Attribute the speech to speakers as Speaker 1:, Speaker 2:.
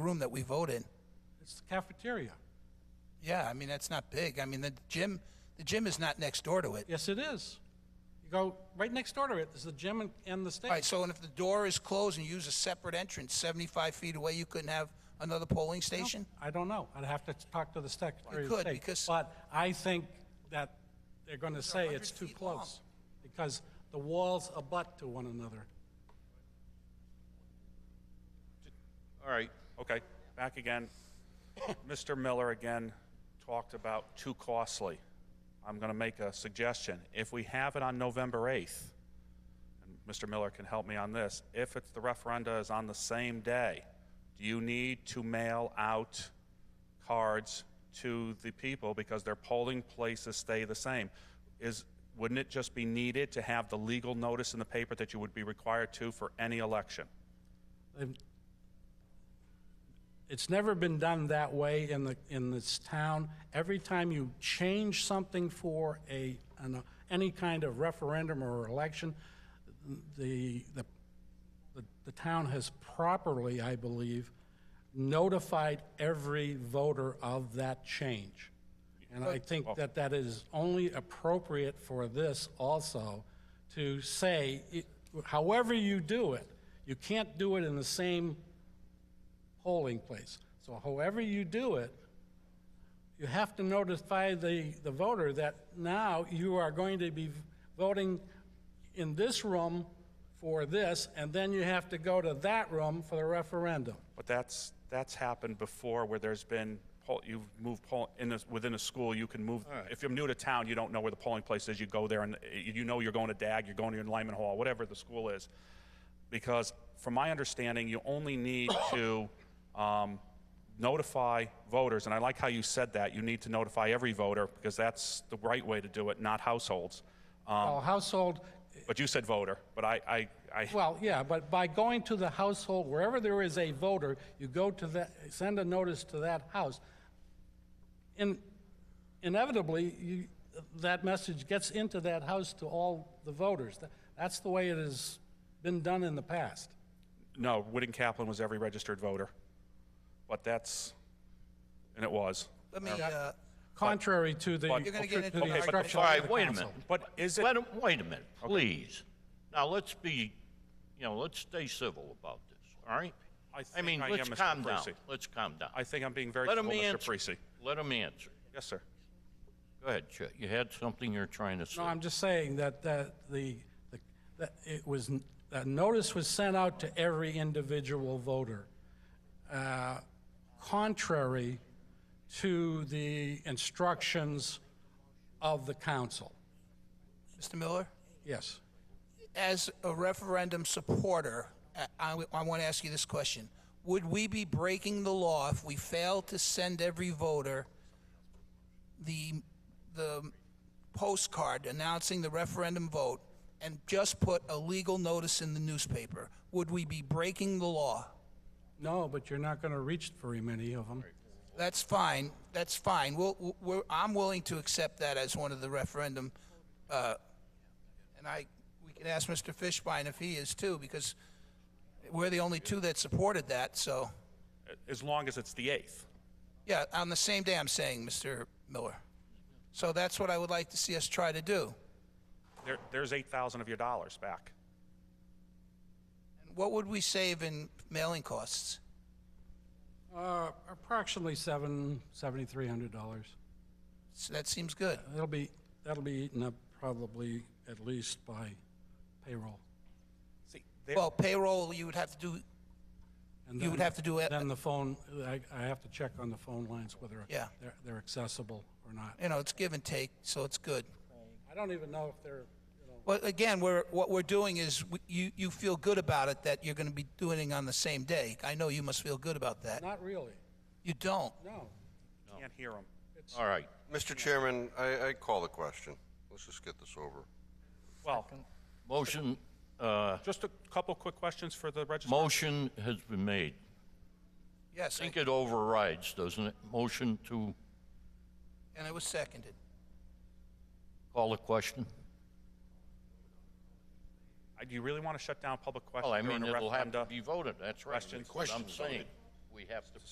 Speaker 1: room that we vote in.
Speaker 2: It's the cafeteria.
Speaker 1: Yeah, I mean, that's not big. I mean, the gym, the gym is not next door to it.
Speaker 2: Yes, it is. You go right next door to it, there's the gym and- and the
Speaker 1: All right,
Speaker 2: stage.
Speaker 1: so and if the door is closed and you use a separate entrance, 75 feet away, you couldn't have another polling station?
Speaker 2: I don't know, I'd have to talk to the Secretary of
Speaker 1: could,
Speaker 2: State.
Speaker 1: because-
Speaker 2: But I think that they're gonna say it's
Speaker 1: 100
Speaker 2: too
Speaker 1: feet long.
Speaker 2: close, because the walls abut to one another.
Speaker 3: All right, okay, back again. Mr. Miller again talked about too costly. I'm going to make a suggestion. If we have it on November 8th, and Mr. Miller can help me on this, if it's, the referenda is on the same day, do you need to mail out cards to the people because their polling places stay the same? Is, wouldn't it just be needed to have the legal notice in the paper that you would be required to for any election?
Speaker 2: They've- It's never been done that way in the, in this town. Every time you change something for a, an, any kind of referendum or election, the, the, the- the town has properly, I believe, notified every voter of that change. And I think that that is only appropriate for this also, to say, it- however you do it, you can't do it in the same polling place. So however you do it, you have to notify the, the voter that now you are going to be voting in this room for this, and then you have to go to that room for the referendum.
Speaker 3: But that's, that's happened before where there's been, poll- you've moved poll, in this, within a school, you can move, if you're new to town, you don't know where the polling place is, you go there and uh, you know you're going to DAG, you're going to your Lyman Hall, whatever the school is. Because from my understanding, you only need to um, notify voters, and I like how you said that, you need to notify every voter because that's the right way to do it, not households. Um,
Speaker 2: Well, household,
Speaker 3: But you said voter, but I, I, I,
Speaker 2: well, yeah, but by going to the household, wherever there is a voter, you go to that, send a notice to that house. In inevitably, you, that message gets into that house to all the voters. Tha- That's the way it has been done in the past.
Speaker 3: no, Whitting Kaplan was every registered voter. But that's, and it was.
Speaker 1: Let me, uh,
Speaker 2: Contrary to the,
Speaker 3: But-
Speaker 2: to
Speaker 1: You're gonna get into
Speaker 2: the
Speaker 1: an argument.
Speaker 2: instructions
Speaker 1: All
Speaker 2: of
Speaker 1: right,
Speaker 2: the
Speaker 4: wait a
Speaker 2: council.
Speaker 4: minute.
Speaker 3: But is it,
Speaker 4: Wait, a- wait a minute, please. Now, let's be, you know, let's stay civil about this, all right?
Speaker 3: I
Speaker 4: I
Speaker 3: think
Speaker 4: mean,
Speaker 3: I
Speaker 4: let's
Speaker 3: am, Mr.
Speaker 4: calm down,
Speaker 3: Parisi.
Speaker 4: let's calm down.
Speaker 3: I think I'm being very
Speaker 4: Let him
Speaker 3: civil, Mr.
Speaker 4: answer.
Speaker 3: Parisi.
Speaker 4: Let them answer.
Speaker 3: Yes, sir.
Speaker 4: Go ahead, Chet, you had something you're trying to say.
Speaker 2: No, I'm just saying that, that the, the- that it was, that notice was sent out to every individual voter, uh, contrary to the instructions of the council.
Speaker 1: Mr. Miller,
Speaker 2: Yes.
Speaker 1: as a referendum supporter, uh, I- I, want to ask you this question. Would we be breaking the law if we fail to send every voter the, the postcard announcing the referendum vote and just put a legal notice in the newspaper? Would we be breaking the law?
Speaker 2: No, but you're not going to reach very many of them.
Speaker 1: That's fine. That's fine. We'll, we're, I'm willing to accept that as one of the referendum, uh, and I, we can ask Mr. Fishbein if he is too, because we're the only two that supported that, so,
Speaker 3: As long as it's the 8th.
Speaker 1: yeah, on the same day, I'm saying, Mr. Miller. So that's what I would like to see us try to do.
Speaker 3: There, there's 8,000 of your dollars back.
Speaker 1: What would we save in mailing costs?
Speaker 2: Uh, Approximately seven, $7,300.
Speaker 1: So that seems good.
Speaker 2: That'll be, that'll be eaten up probably at least by payroll.
Speaker 3: See, there-
Speaker 1: Well, payroll, you would have to do,
Speaker 2: And
Speaker 1: You would
Speaker 2: then-
Speaker 1: have to do it-
Speaker 2: Then the phone, I, I have to check on the phone lines whether
Speaker 1: Yeah.
Speaker 2: they're, they're accessible or not.
Speaker 1: you know, it's give and take, so it's good.
Speaker 2: I don't even know if they're, you know,
Speaker 1: Well, again, we're, what we're doing is, we- you, you feel good about it that you're going to be doing it on the same day. I know you must feel good about that.
Speaker 2: not really,
Speaker 1: You don't.
Speaker 2: no.
Speaker 3: Can't hear them.
Speaker 4: All right,
Speaker 5: Mr. Chairman, I, I call the question. Let's just get this over.
Speaker 3: Well,
Speaker 4: motion, uh,
Speaker 3: just a couple quick questions for the register.
Speaker 4: motion has been made.
Speaker 1: Yes,
Speaker 4: I think
Speaker 1: I-
Speaker 4: it overrides, doesn't it? Motion to
Speaker 1: and it was seconded.
Speaker 4: call a question?
Speaker 3: Uh, Do you really want to shut down public
Speaker 4: Well, I
Speaker 3: questions during
Speaker 4: mean,
Speaker 3: a
Speaker 4: it'll have to
Speaker 3: referenda?
Speaker 4: be voted, that's right.
Speaker 3: Questions?
Speaker 4: That's what I'm saying. we have to put